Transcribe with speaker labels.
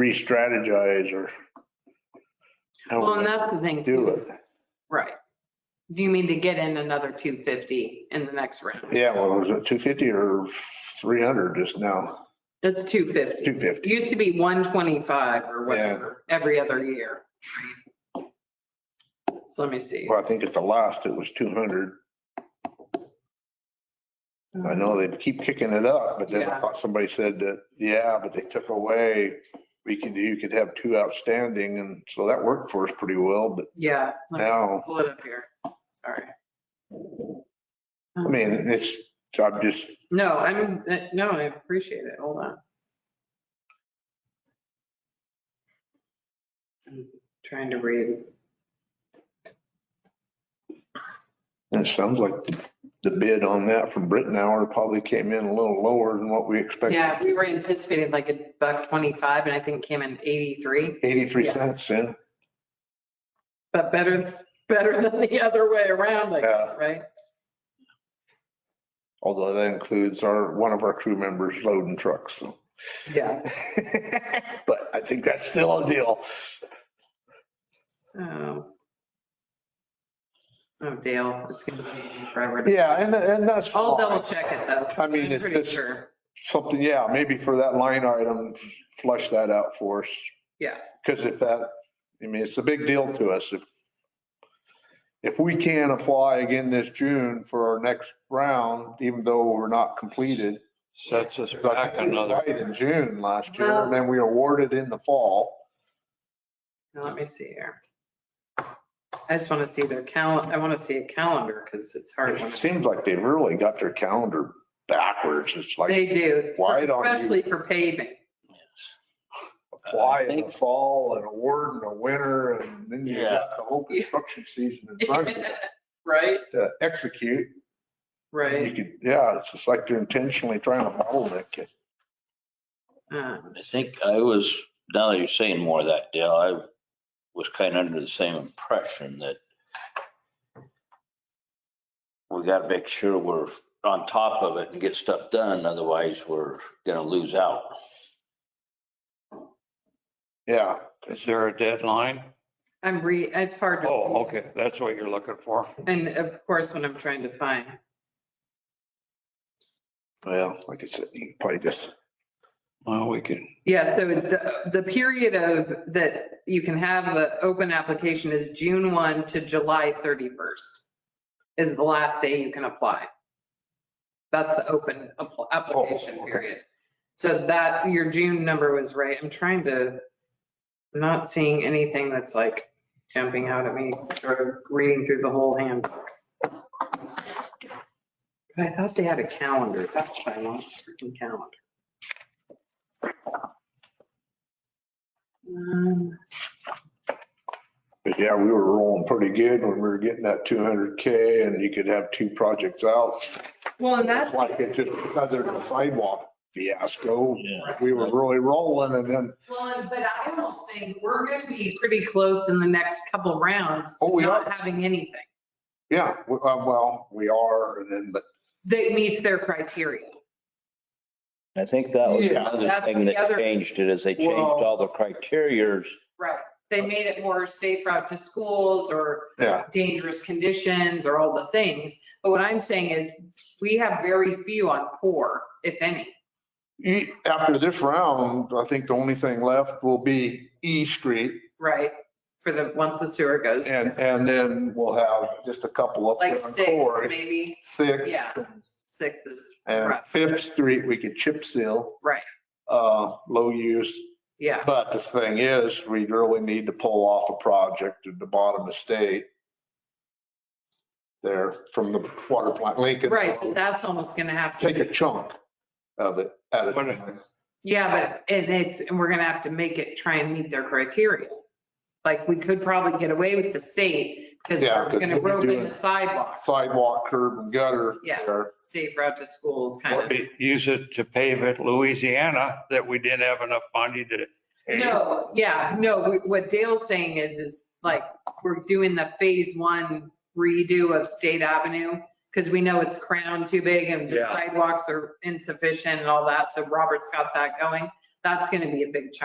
Speaker 1: re-strategize or
Speaker 2: Well,
Speaker 1: how
Speaker 2: and
Speaker 1: we
Speaker 2: that's the thing
Speaker 1: do
Speaker 2: too,
Speaker 1: it.
Speaker 2: is- right. Do you mean to get in another 250 in the next round?
Speaker 1: Yeah, well, was it 250 or 300 just now?
Speaker 2: That's 250.
Speaker 1: 250.
Speaker 2: It used to be 125 or whatever, every other year. So let me see.
Speaker 1: Well, I think at the last it was 200. I know they keep kicking it up, but then I
Speaker 2: Yeah.
Speaker 1: thought somebody said that, yeah, but they took away, we could, you could have two outstanding. And so that worked for us pretty well, but
Speaker 2: Yeah. let me
Speaker 1: now,
Speaker 2: Pull it up here. Sorry.
Speaker 1: I mean, it's, I'm just,
Speaker 2: No, I'm, uh, no, I appreciate it. Hold on. I'm Trying to read.
Speaker 1: it sounds like the- the bid on that from Britain Hour probably came in a little lower than what we expected.
Speaker 2: Yeah, we were anticipating like a buck 25 and I think came in 83,
Speaker 1: 83
Speaker 2: Yeah.
Speaker 1: cents in.
Speaker 2: but better, better than the other way around, I guess, right?
Speaker 1: Although that includes our, one of our crew members loading trucks, so.
Speaker 2: Yeah.
Speaker 1: But I think that's still a deal.
Speaker 2: So. Oh, Dale, it's going to be forever. to-
Speaker 1: Yeah, and, and that's.
Speaker 2: I'll
Speaker 1: fine.
Speaker 2: double check it though.
Speaker 1: I mean,
Speaker 2: I'm
Speaker 1: it's
Speaker 2: pretty
Speaker 1: just-
Speaker 2: sure.
Speaker 1: Something, yeah, maybe for that line item, flush that out for us.
Speaker 2: Yeah.
Speaker 1: Because if that, I mean, it's a big deal to us. If, if we can apply again this June for our next round, even though we're not completed.
Speaker 3: Sets us
Speaker 1: I
Speaker 3: back
Speaker 1: think we
Speaker 3: another.
Speaker 1: applied In June last year,
Speaker 2: Well-
Speaker 1: and then we awarded in the fall.
Speaker 2: Now, Let me see here. I just want to see their calendar. I want to see a calendar because it's hard. when
Speaker 1: It seems like they really got their calendar backwards. It's like
Speaker 2: They do,
Speaker 1: why don't you-
Speaker 2: especially for paving.
Speaker 1: apply in the fall and award in the winter and then you
Speaker 3: Yeah.
Speaker 1: got the whole construction season in front of you
Speaker 2: Right,
Speaker 1: to execute. You
Speaker 2: right.
Speaker 1: could, yeah, it's just like they're intentionally trying to bottleneck it.
Speaker 2: Uh,
Speaker 3: I think I was, now that you're saying more of that, Dale, I was kind of under the same impression that we got to make sure we're on top of it and get stuff done, otherwise we're going to lose out.
Speaker 1: Yeah.
Speaker 4: Is there a deadline?
Speaker 2: I'm re, it's hard to.
Speaker 4: Oh, okay, that's what you're looking for.
Speaker 2: And of course, when I'm trying to find,
Speaker 1: Well, like I said, you can probably just,
Speaker 4: Well, we can,
Speaker 2: yeah, so the, the period of, that you can have the open application is June 1 to July 31st is the last day you can apply. That's the open app- application
Speaker 1: Oh, okay.
Speaker 2: period. So that, your June number was right. I'm trying to, I'm not seeing anything that's like jumping out at me, sort of reading through the whole handbook. But I thought they had a calendar. That's why I want a freaking calendar. Um,
Speaker 1: but yeah, we were rolling pretty good when we were getting that 200K and you could have two projects out.
Speaker 2: Well, and that's,
Speaker 1: It's like it just, another sidewalk fiasco.
Speaker 3: Yeah.
Speaker 1: We were really rolling and then,
Speaker 2: well, and- but I almost think we're going to be pretty close in the next couple rounds. to
Speaker 1: Oh, we
Speaker 2: Not having anything
Speaker 1: yeah, we- uh, well, we are and then, but
Speaker 2: that meets their criteria.
Speaker 3: I think that was
Speaker 1: Yeah.
Speaker 3: another
Speaker 2: That's
Speaker 3: thing
Speaker 2: the
Speaker 3: that
Speaker 2: other-
Speaker 3: changed it, is they changed
Speaker 1: Well-
Speaker 3: all the criterias.
Speaker 2: Right. They made it more safe route to schools or
Speaker 1: yeah,
Speaker 2: dangerous conditions or all the things. But what I'm saying is we have very few on poor, if any.
Speaker 1: E- After this round, I think the only thing left will be E Street
Speaker 2: Right. For the, once the sewer goes,
Speaker 1: and, and then we'll have just a couple up there
Speaker 2: like
Speaker 1: on
Speaker 2: six,
Speaker 1: Corey.
Speaker 2: maybe,
Speaker 1: Sixth
Speaker 2: yeah. Six is
Speaker 1: and
Speaker 2: rough.
Speaker 1: Fifth Street, we could chip seal,
Speaker 2: Right,
Speaker 1: uh, low use.
Speaker 2: yeah,
Speaker 1: But the thing is, we really need to pull off a project at the bottom of state. There from the water plant, Lincoln.
Speaker 2: right, but that's almost gonna have to,
Speaker 1: Take a
Speaker 2: be-
Speaker 1: chunk of it at a
Speaker 4: What-
Speaker 1: time.
Speaker 2: yeah, but, and it's, and we're gonna have to make it try and meet their criteria. Like, we could probably get away with the state, because
Speaker 1: Yeah,
Speaker 2: we're
Speaker 1: 'cause
Speaker 2: gonna
Speaker 1: we'll be
Speaker 2: rope in
Speaker 1: doing-
Speaker 2: the sidewalk,
Speaker 1: Sidewalk, curb and gutter.
Speaker 2: Yeah.
Speaker 1: there.
Speaker 2: safe route to schools, kind
Speaker 4: or
Speaker 2: of.
Speaker 4: use it to pave it Louisiana that we didn't have enough money to. pave.
Speaker 2: No, yeah, no, what Dale's saying is, is like, we're doing the phase one redo of State Avenue, because we know it's crowned too big and the
Speaker 4: Yeah.
Speaker 2: sidewalks are insufficient and all that, so Robert's got that going. That's gonna be a big chunk.